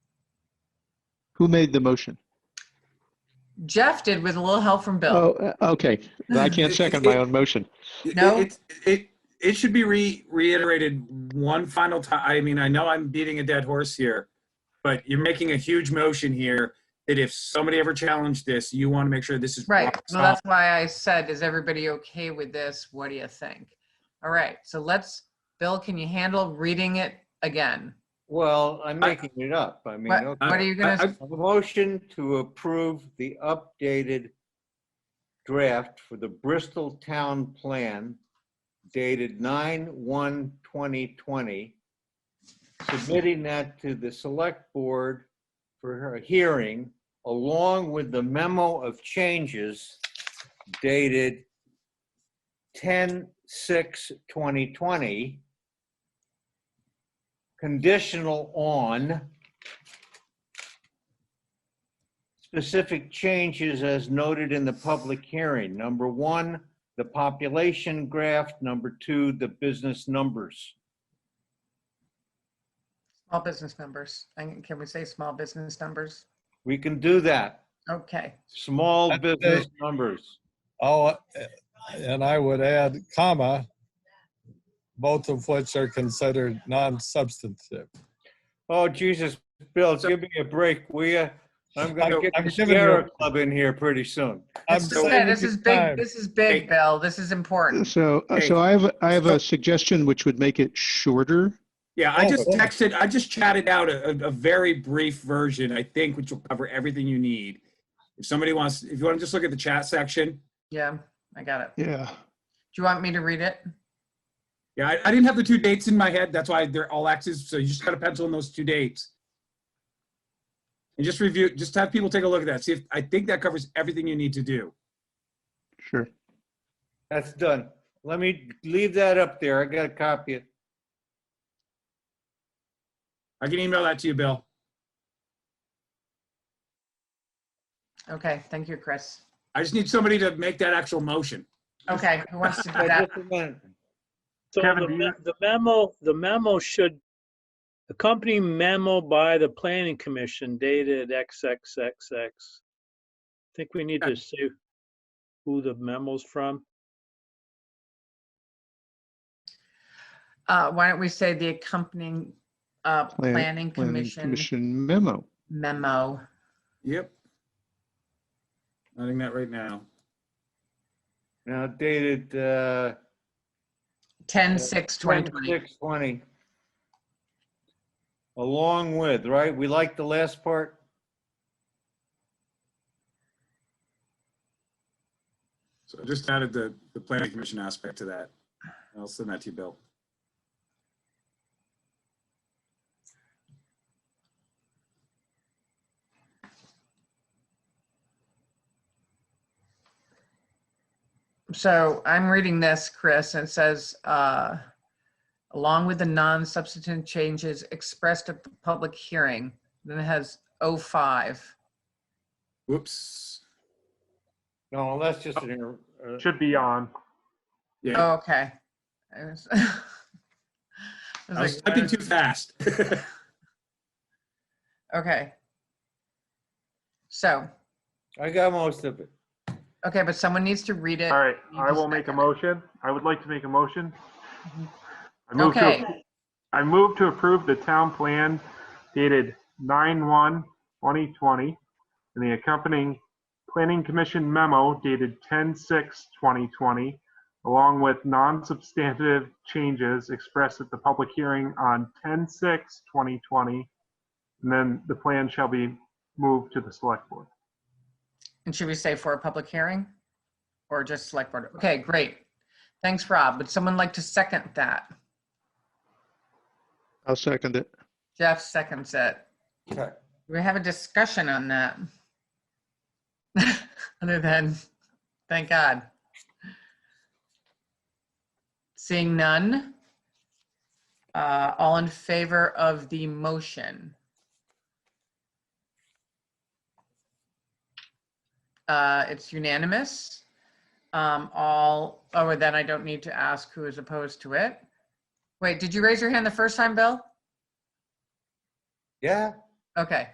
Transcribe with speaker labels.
Speaker 1: Who made the motion?
Speaker 2: Jeff did with a little help from Bill.
Speaker 1: Oh, uh, okay. I can't second my own motion.
Speaker 3: It-
Speaker 2: No?
Speaker 3: It, it, it should be re, reiterated one final time. I mean, I know I'm beating a dead horse here, but you're making a huge motion here that if somebody ever challenged this, you want to make sure this is.
Speaker 2: Right.
Speaker 3: rock
Speaker 2: Well,
Speaker 3: solid.
Speaker 2: that's why I said, is everybody okay with this? What do you think? All right. So let's, Bill, can you handle reading it again?
Speaker 4: Well, I'm making it up. I mean,
Speaker 2: What,
Speaker 4: okay.
Speaker 2: what are you
Speaker 3: I-
Speaker 2: gonna,
Speaker 3: I-
Speaker 4: a motion to approve the updated draft for the Bristol Town Plan dated 9/1/2020, submitting that to the Select Board for her hearing, along with the memo of changes dated 10/6/2020, conditional on specific changes as noted in the public hearing. Number one, the population graph. Number two, the business numbers.
Speaker 2: small business numbers? And Can we say small business numbers?
Speaker 4: We can do that.
Speaker 2: Okay.
Speaker 4: Small
Speaker 5: That's it.
Speaker 4: business numbers.
Speaker 5: Oh, and I would add comma, both of which are considered non-substantive.
Speaker 4: Oh, Jesus, Bill, give me a break, will you? I'm
Speaker 5: I'm-
Speaker 4: gonna get
Speaker 5: I'm
Speaker 4: the
Speaker 5: giving you-
Speaker 4: Sierra Club in here pretty soon.
Speaker 5: I'm
Speaker 2: This is
Speaker 5: saving
Speaker 2: good. This
Speaker 5: you
Speaker 2: is
Speaker 5: time.
Speaker 2: big, this is big, Bill. This is important.
Speaker 1: So, uh, so I have, I have a suggestion which would make it shorter.
Speaker 3: Yeah, I
Speaker 5: Oh,
Speaker 3: just
Speaker 5: okay.
Speaker 3: texted, I just chatted out a, a- a very brief version, I think, which will cover everything you need. If somebody wants, if you want to just look at the chat section,
Speaker 2: Yeah, I got it.
Speaker 1: Yeah.
Speaker 2: Do you want me to read it?
Speaker 3: yeah, I, I didn't have the two dates in my head. That's why they're all X's. So you just got to pencil in those two dates. And just review, just have people take a look at that. See if, I think that covers everything you need to do.
Speaker 1: Sure.
Speaker 4: That's done. Let me leave that up there. I gotta copy it.
Speaker 3: I can email that to you, Bill.
Speaker 2: Okay, thank you, Chris.
Speaker 3: I just need somebody to make that actual motion.
Speaker 2: Okay, who wants to do
Speaker 4: Oh,
Speaker 2: that?
Speaker 4: Just a minute.
Speaker 6: So
Speaker 3: Kevin,
Speaker 6: the
Speaker 3: do you-
Speaker 6: me- the memo, the memo should, accompany memo by the planning commission dated XXXX. I Think we need to see who the memo's from.
Speaker 2: Uh, why don't we say the accompanying, uh,
Speaker 1: Plan- Planning
Speaker 2: planning commission
Speaker 1: Commission memo.
Speaker 2: memo?
Speaker 3: Yep. Noting that right now.
Speaker 4: Now dated, uh.
Speaker 2: Ten, six, twenty twenty.
Speaker 4: 2620. Along with, right? We like the last part?
Speaker 3: So I just added the, the planning commission aspect to that. I'll send that to you, Bill.
Speaker 2: So I'm reading this, Chris, and it says, uh, along with the non-substantive changes expressed at the public hearing, then it has oh five.
Speaker 3: Whoops.
Speaker 4: No, that's just an, error. Uh,
Speaker 7: Should be on.
Speaker 3: Yeah,
Speaker 2: Oh, okay. I was- I was
Speaker 3: I was
Speaker 2: Oh, like,
Speaker 3: typing too fast.
Speaker 2: Okay. So,
Speaker 4: I got most of it.
Speaker 2: okay, but someone needs to read it.
Speaker 7: All right,
Speaker 2: You
Speaker 7: I
Speaker 2: just
Speaker 7: will make a
Speaker 2: second.
Speaker 7: motion. I would like to make a motion.
Speaker 2: Mhm.
Speaker 7: I move to,
Speaker 2: Okay.
Speaker 7: appro- I move to approve the town plan dated 9/1/2020 and the accompanying planning commission memo dated 10/6/2020, along with non-substantive changes expressed at the public hearing on 10/6/2020. And then the plan shall be moved to the select board.
Speaker 2: And should we say for a public hearing? Or just select board? Okay, great. Thanks, Rob. Would someone like to second that?
Speaker 1: I'll second it.
Speaker 2: Jeff seconds it.
Speaker 4: Okay.
Speaker 2: Do We have a discussion on that. Other than, thank God. Seeing none. Uh, all in favor of the motion? Uh, it's unanimous. Um, all, oh, then I don't need to ask who is opposed to it. Wait, did you raise your hand the first time, Bill?
Speaker 4: Yeah?
Speaker 2: Okay.